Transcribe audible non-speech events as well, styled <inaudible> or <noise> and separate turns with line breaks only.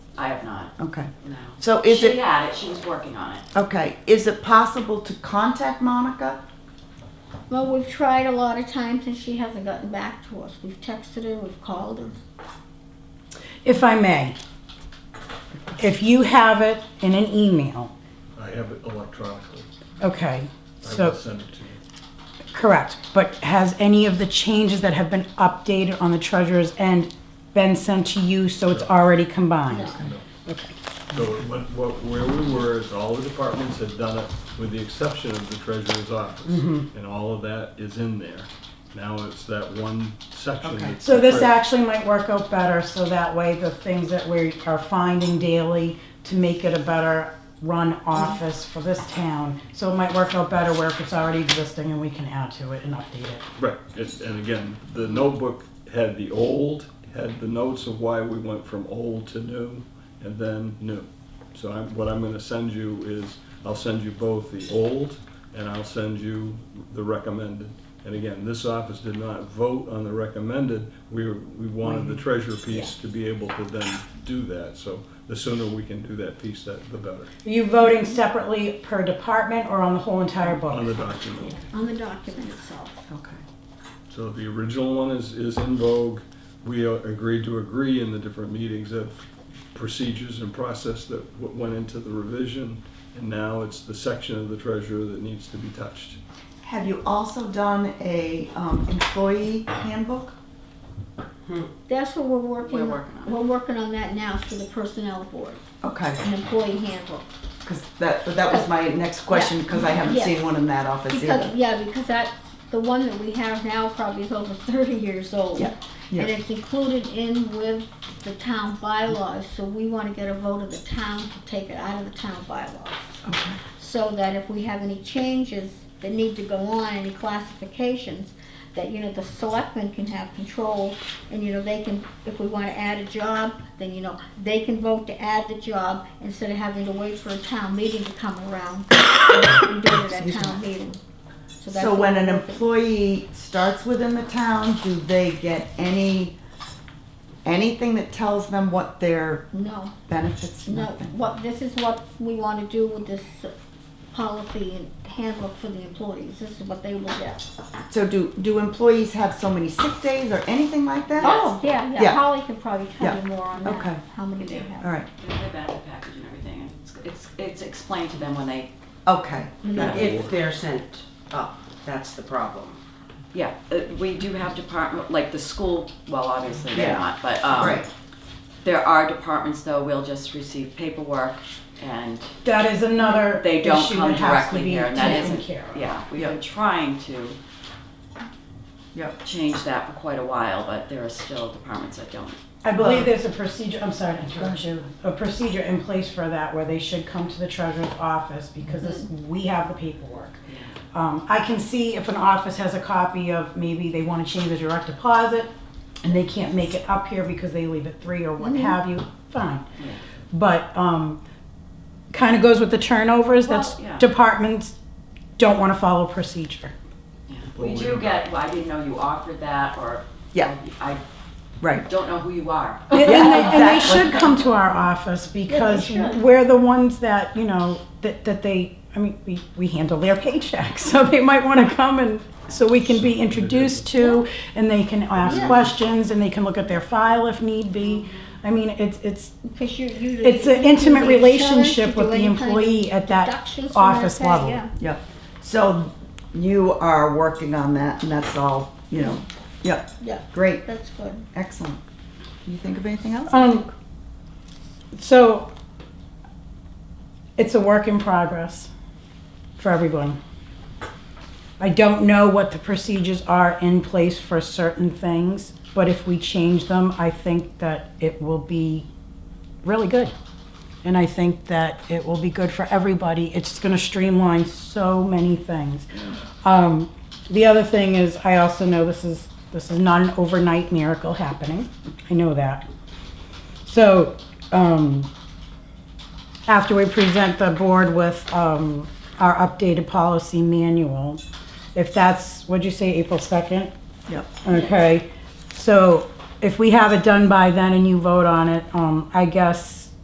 I have not,
Okay.
no.
So is
She
it-
had it, she was working on it.
Okay. Is it possible to contact Monica?
Well, we've tried a lot of times and she hasn't gotten back to us. We've texted her, we've called her.
If I may, if you have it in an email,
I have it electronically.
okay,
I will
so,
send it to you.
correct, but has any of the changes that have been updated on the treasurer's end been sent to you, so it's already combined?
So it went- what, where we were is all the departments had done it with the exception of the treasurer's office.
Mm-hmm.
And all of that is in there. Now it's that one section
Okay.
that's.
So this
separate.
actually might work out better, so that way the things that we are finding daily to make it a better run office for this town, so it might work out better where if it's already existing and we can add to it and update it.
Right, it's, and again, the notebook had the old, had the notes of why we went from old to new, and then new. So I'm, what I'm gonna send you is, I'll send you both the old, and I'll send you the recommended. And again, this office did not vote on the recommended, we, were- we wanted the treasure piece to be able to then do that, so the sooner we can do that piece, that, the better,
Are you voting separately per department or on the whole entire
on the
book?
document.
On the document itself.
Okay.
So the original one is, is in vogue. We uh, agreed to agree in the different meetings of procedures and process that w- went into the revision. And now it's the section of the treasurer that needs to be touched.
Have you also done a um, employee handbook?
That's what we're working
We're
on.
working on it.
We're working on that now through the personnel board,
Okay,
an employee handbook.
because that that was my next question because I haven't
Yeah.
seen one in that office
Because,
either.
yeah, because that, the one that we have now probably is over thirty years old.
Yeah, yeah.
And it's included in with the town bylaws, so we wanna get a vote of the town to take it out of the town bylaws. So that if we have any changes that need to go on, any classifications, that, you know, the selectmen can have control, and, you know, they can, if we wanna add a job, then, you know, they can vote to add the job instead of having to wait for a town meeting to come around. and do it at town meeting. that's
So when
what
an
we're working-
employee starts within the town, do they get any anything that tells them what their
No,
benefits?
no,
Nothing.
what, this is what we wanna do with this uh, policy and handbook for the employees, this is what they will get.
So do do employees have so many sick days or anything like that?
Oh, yeah,
Yeah.
yeah, Holly can probably tell
Yeah.
you more on that,
Okay.
how many they have.
All right.
They have the benefit package and everything, and it's, it's, it's explained to them when they,
Okay.
Yeah.
If they're sent up, that's the problem.
yeah, uh, we do have department, like the school, well, obviously they're
Yeah.
not, but, um,
Right.
there are departments though, we'll just receive paperwork and
That is another
they don't
issue
come
that has to
directly
be
here, and that
taken
isn't,
care of.
yeah, we've been trying to
Yep.
change that for quite a while, but there are still departments that don't.
I believe there's a procedure, I'm sorry to interrupt you, a procedure in place for that where they should come to the treasurer's office because this,
Mm-hmm.
we have the paperwork. Um, I can see if an office has a copy of, maybe they wanna change the direct deposit and they can't make it up here because they leave at three or
Mm-hmm.
what have you, fine. But, um, kinda goes with the turnovers, that's,
Well, yeah.
departments don't wanna follow procedure.
Yeah.
Well,
We
we
do
don't-
get, well, I didn't know you offered that, or.
Yeah.
I
Right.
don't know who you are.
And, and they, and they
exactly.
should come to our office because
should.
we're the ones that, you know, that, that they, I mean, we, we handle their paychecks, <laughs> so they might want to come and, so we can be introduced to, and they can ask questions, and they can look at their file if need be. I mean, it's, it's,
Because you, you.
it's
you
an
do the
intimate
insurance,
relationship
you
with
do
the
any kind of
employee at that
deductions from
office
their pay,
level.
yeah.
Yep. So you are working on that, and that's all. You know. Yep.
Yeah,
Great.
that's good.
Excellent. Can you think of anything else?
Um, so it's a work in progress for everyone. I don't know what the procedures are in place for certain things, but if we change them, I think that it will be really good. And I think that it will be good for everybody. It's going to streamline so many things. Um, the other thing is, I also know this is this is not an overnight miracle happening. I know that. So, um, after we present the board with, um, our updated policy manual, if that's, what'd you say, April second?
Yep.
Okay, so if we have it done by then and you vote on it, um, I guess